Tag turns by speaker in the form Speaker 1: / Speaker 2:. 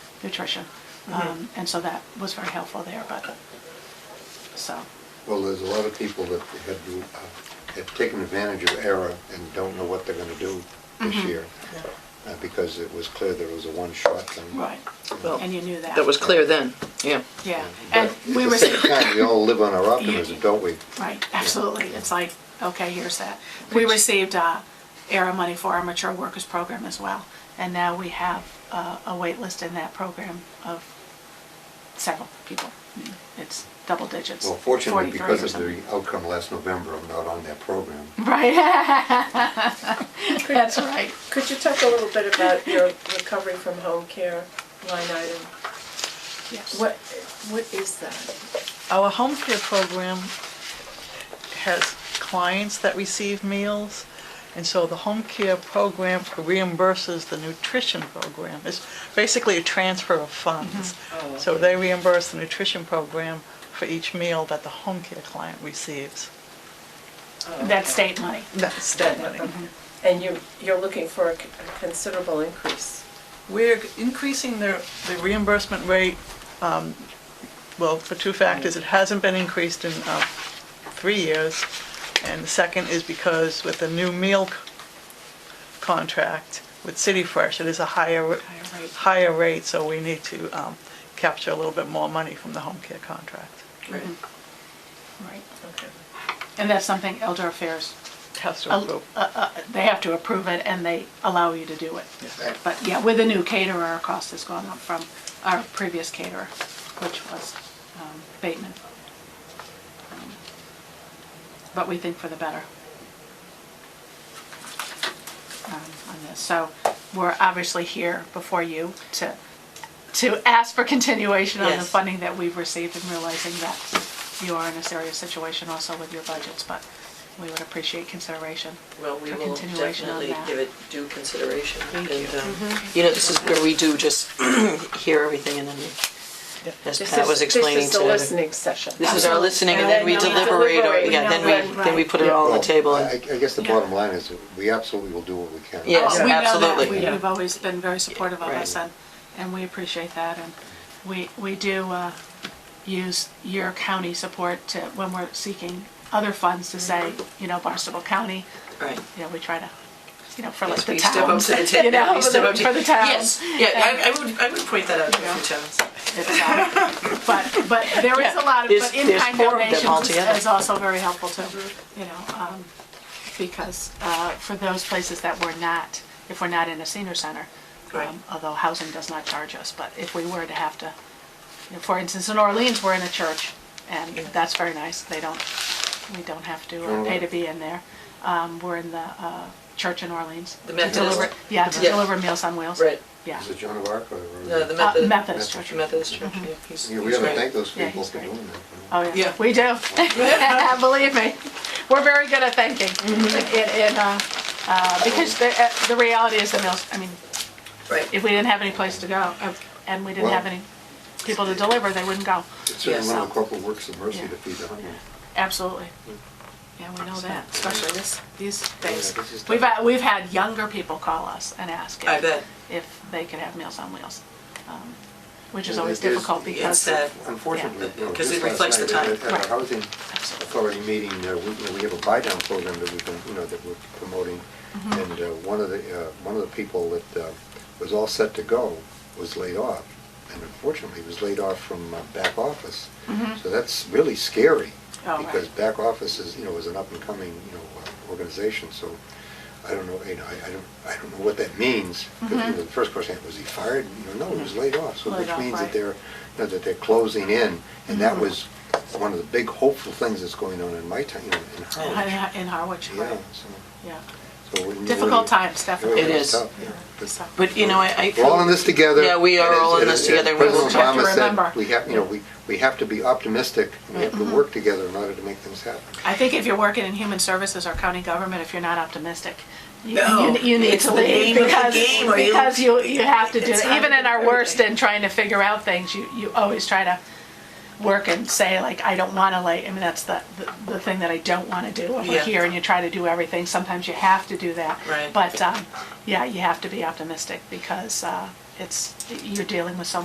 Speaker 1: nutrition. Um, And so that was very helpful there, but, so,
Speaker 2: Well, there's a lot of people that had, uh, have taken advantage of ERA and don't know what they're gonna do this
Speaker 1: Mm-hmm.
Speaker 2: year, uh, because it was clear there was a one-shot thing.
Speaker 1: right.
Speaker 3: Well,
Speaker 1: And you knew that.
Speaker 3: That was clear then, yeah.
Speaker 1: Yeah,
Speaker 2: But
Speaker 1: and we were.
Speaker 2: At the same time, we all live on our optimism, don't we?
Speaker 1: Right, absolutely. It's like, okay, here's that. We received uh, ERA money for our mature workers program as well. And now we have uh, a wait list in that program of several people. It's double digits.
Speaker 2: Well, fortunately,
Speaker 1: 43 or
Speaker 2: because of the
Speaker 1: something.
Speaker 2: outcome last November, I'm not on that program.
Speaker 1: Right. That's right.
Speaker 4: Could you talk a little bit about your recovery from home care line item?
Speaker 1: Yes.
Speaker 4: What, what is that?
Speaker 5: Our home care program has clients that receive meals, and so the home care program reimburses the nutrition program. It's basically a transfer of funds. So they reimburse the nutrition program for each meal that the home care client receives.
Speaker 3: Um,
Speaker 1: That's state money.
Speaker 5: That's
Speaker 4: That-
Speaker 5: state money.
Speaker 4: Uh-huh. And you, you're looking for a c- a considerable increase.
Speaker 5: We're increasing the the reimbursement rate, um, well, for two factors. It hasn't been increased in uh, three years. And the second is because with the new meal c- contract with City Fresh, it is a higher,
Speaker 1: Higher rate.
Speaker 5: higher rate, so we need to um, capture a little bit more money from the home care contract.
Speaker 1: Mm-hmm.
Speaker 4: Right.
Speaker 1: Right.
Speaker 4: Okay.
Speaker 1: And that's something Elder Affairs,
Speaker 5: Has to
Speaker 1: uh,
Speaker 5: approve.
Speaker 1: uh, they have to approve it and they allow you to do it. But yeah, with a new caterer, our cost has gone up from our previous caterer, which was um, Bateman. Um, But we think for the better um, on this. So we're obviously here before you to, to ask for continuation on the
Speaker 3: Yes.
Speaker 1: funding that we've received and realizing that you are in a serious situation also with your budgets, but we would appreciate consideration.
Speaker 3: Well, we
Speaker 1: for
Speaker 3: will
Speaker 1: continuation on
Speaker 3: definitely
Speaker 1: that.
Speaker 3: give it due consideration.
Speaker 1: Thank
Speaker 3: and,
Speaker 1: you.
Speaker 3: um, You know, this is where we do just hear everything and then,
Speaker 5: Yep.
Speaker 3: we- as
Speaker 4: This
Speaker 3: Pat
Speaker 4: is-
Speaker 3: was explaining
Speaker 4: This is the
Speaker 3: today.
Speaker 4: listening session.
Speaker 3: This is our listening and then we
Speaker 4: Absolutely. And then we
Speaker 3: deliberate, or,
Speaker 4: deliberate.
Speaker 3: yeah, then we, then we
Speaker 1: Right.
Speaker 3: put it all on
Speaker 2: Well,
Speaker 3: the table.
Speaker 2: I, I
Speaker 3: and-
Speaker 2: guess the
Speaker 1: Yeah.
Speaker 2: bottom line is, that we absolutely will do what we can.
Speaker 3: Yes,
Speaker 1: Oh, we know that.
Speaker 3: absolutely.
Speaker 1: We-
Speaker 4: Yeah.
Speaker 1: We've always been very supportive of
Speaker 3: Right.
Speaker 1: us, and, and we appreciate that, and we, we do uh, use your county support to, when we're seeking other funds to say, you know, Barnstable County,
Speaker 3: Right.
Speaker 1: you know, we try to, you know, for like
Speaker 3: Yes,
Speaker 1: the
Speaker 3: we step up
Speaker 1: towns,
Speaker 3: to the tip.
Speaker 1: you know,
Speaker 3: We step up to-
Speaker 1: for the towns.
Speaker 3: Yes, yeah, I, I would, I would point that out to the towns.
Speaker 1: It's, uh, But, but there is a lot of,
Speaker 3: There's-
Speaker 1: but in-kind
Speaker 3: there's four of them
Speaker 1: donations is-
Speaker 3: altogether.
Speaker 1: is also very helpful too, you know, um, because uh, for those places that we're not, if we're not in a senior center,
Speaker 3: Right.
Speaker 1: um, although housing does not charge us, but if we were to have to, you know, for instance, in Orleans, we're in a church, and that's very nice, they don't, we don't have to uh, pay to be in there. Um, We're in the uh, church in Orleans. to
Speaker 3: The Methodist.
Speaker 1: deliver- Yeah, to
Speaker 3: Yeah.
Speaker 1: deliver Meals on Wheels.
Speaker 3: Right.
Speaker 1: Yeah.
Speaker 2: Is it Joan of Arc or? or-
Speaker 3: No, the
Speaker 1: Uh,
Speaker 3: Methodist.
Speaker 1: Methodist church.
Speaker 3: The Methodist Church, yeah. he's-
Speaker 2: Yeah, we
Speaker 3: he's
Speaker 2: ought to
Speaker 3: right.
Speaker 2: thank those
Speaker 1: Yeah,
Speaker 2: people
Speaker 1: he's
Speaker 2: for
Speaker 1: great.
Speaker 2: doing that.
Speaker 1: Oh, yeah,
Speaker 3: Yeah.
Speaker 1: we do. Believe me, we're very good at thanking.
Speaker 3: Mm-hmm.
Speaker 1: And, and, uh, uh, because the, uh, the reality is the mills, I mean,
Speaker 3: Right.
Speaker 1: if we didn't have any place to go uh, and we didn't have
Speaker 2: Well-
Speaker 1: any people to deliver, they wouldn't go.
Speaker 2: It's certainly
Speaker 3: Yeah,
Speaker 2: one of
Speaker 1: so-
Speaker 2: the corporal works of mercy
Speaker 1: Yeah.
Speaker 2: to feed the hungry.
Speaker 1: Absolutely. Yeah, we know that, especially this, these days.
Speaker 2: Yeah, this is
Speaker 1: We've,
Speaker 2: tough.
Speaker 1: had- we've had younger people call us and ask
Speaker 3: I
Speaker 1: if-
Speaker 3: bet.
Speaker 1: if they could have Meals on Wheels, um, which is
Speaker 2: Yeah,
Speaker 1: always
Speaker 2: it is-
Speaker 1: difficult
Speaker 2: it's uh,
Speaker 1: because.
Speaker 3: sad.
Speaker 2: Unfortunately.
Speaker 3: Yeah,
Speaker 2: you know,
Speaker 3: 'cause
Speaker 2: just
Speaker 3: it reflects
Speaker 2: last
Speaker 3: the
Speaker 2: night,
Speaker 3: time.
Speaker 2: At at
Speaker 1: Right.
Speaker 2: our housing
Speaker 1: Absolutely.
Speaker 2: authority meeting, uh, we, you know, we have a buy-down program that we've been, you know, that we're promoting.
Speaker 1: Mm-hmm.
Speaker 2: And uh, one of the, uh, one of the people that uh, was all set to go was laid off. And unfortunately, was laid off from uh, back office. So that's really scary.
Speaker 1: Mm-hmm. Oh, right.
Speaker 2: Because back office is, you know, is an up-and-coming, you know, uh, organization, so I don't know, you know, I I don't, I don't know what that means. 'Cause, you know, The first question, was he fired? You know, no, he was laid off, so
Speaker 1: Mm-hmm. Laid
Speaker 2: which
Speaker 1: off,
Speaker 2: means that
Speaker 1: right.
Speaker 2: they're, you know, that they're closing in. And that
Speaker 1: Mm-hmm.
Speaker 2: was one of the big hopeful things that's going on in my town, you know, in Harwich.
Speaker 1: In Harwich,
Speaker 2: Yeah,
Speaker 1: right,
Speaker 2: so-
Speaker 1: yeah.
Speaker 2: so. when you
Speaker 1: Difficult
Speaker 2: really-
Speaker 1: times, definitely.
Speaker 2: really
Speaker 3: It is.
Speaker 2: tough, yeah.
Speaker 1: So-
Speaker 3: But, you know, I, I.
Speaker 2: We're all in this together.
Speaker 3: Yeah, we are
Speaker 2: And as-
Speaker 3: all in
Speaker 2: and
Speaker 3: this
Speaker 2: as
Speaker 3: together. We will
Speaker 2: President
Speaker 1: try to
Speaker 2: Obama
Speaker 1: remember.
Speaker 2: said, we have, you know, we, we have to be optimistic, and we have
Speaker 1: Mm-hmm.
Speaker 2: to work together in order to make things happen.
Speaker 1: I think if you're working in human services or county government, if you're not optimistic, you,
Speaker 3: No,
Speaker 1: you, you need
Speaker 3: it's
Speaker 1: to
Speaker 3: the
Speaker 1: leave
Speaker 3: name of the
Speaker 1: because,
Speaker 3: game or you-
Speaker 1: because you, you have to do
Speaker 3: It's
Speaker 1: that. Even in our
Speaker 3: hard.
Speaker 1: worst and trying to figure out things, you, you always try to work and say like, I don't want to lay, I mean, that's the, the, the thing that I don't want to do. If we're
Speaker 3: Yeah.
Speaker 1: here and you try to do everything, sometimes you have to do that.
Speaker 3: Right.
Speaker 1: But, um, yeah, you have to be optimistic because, uh, it's, you're dealing with so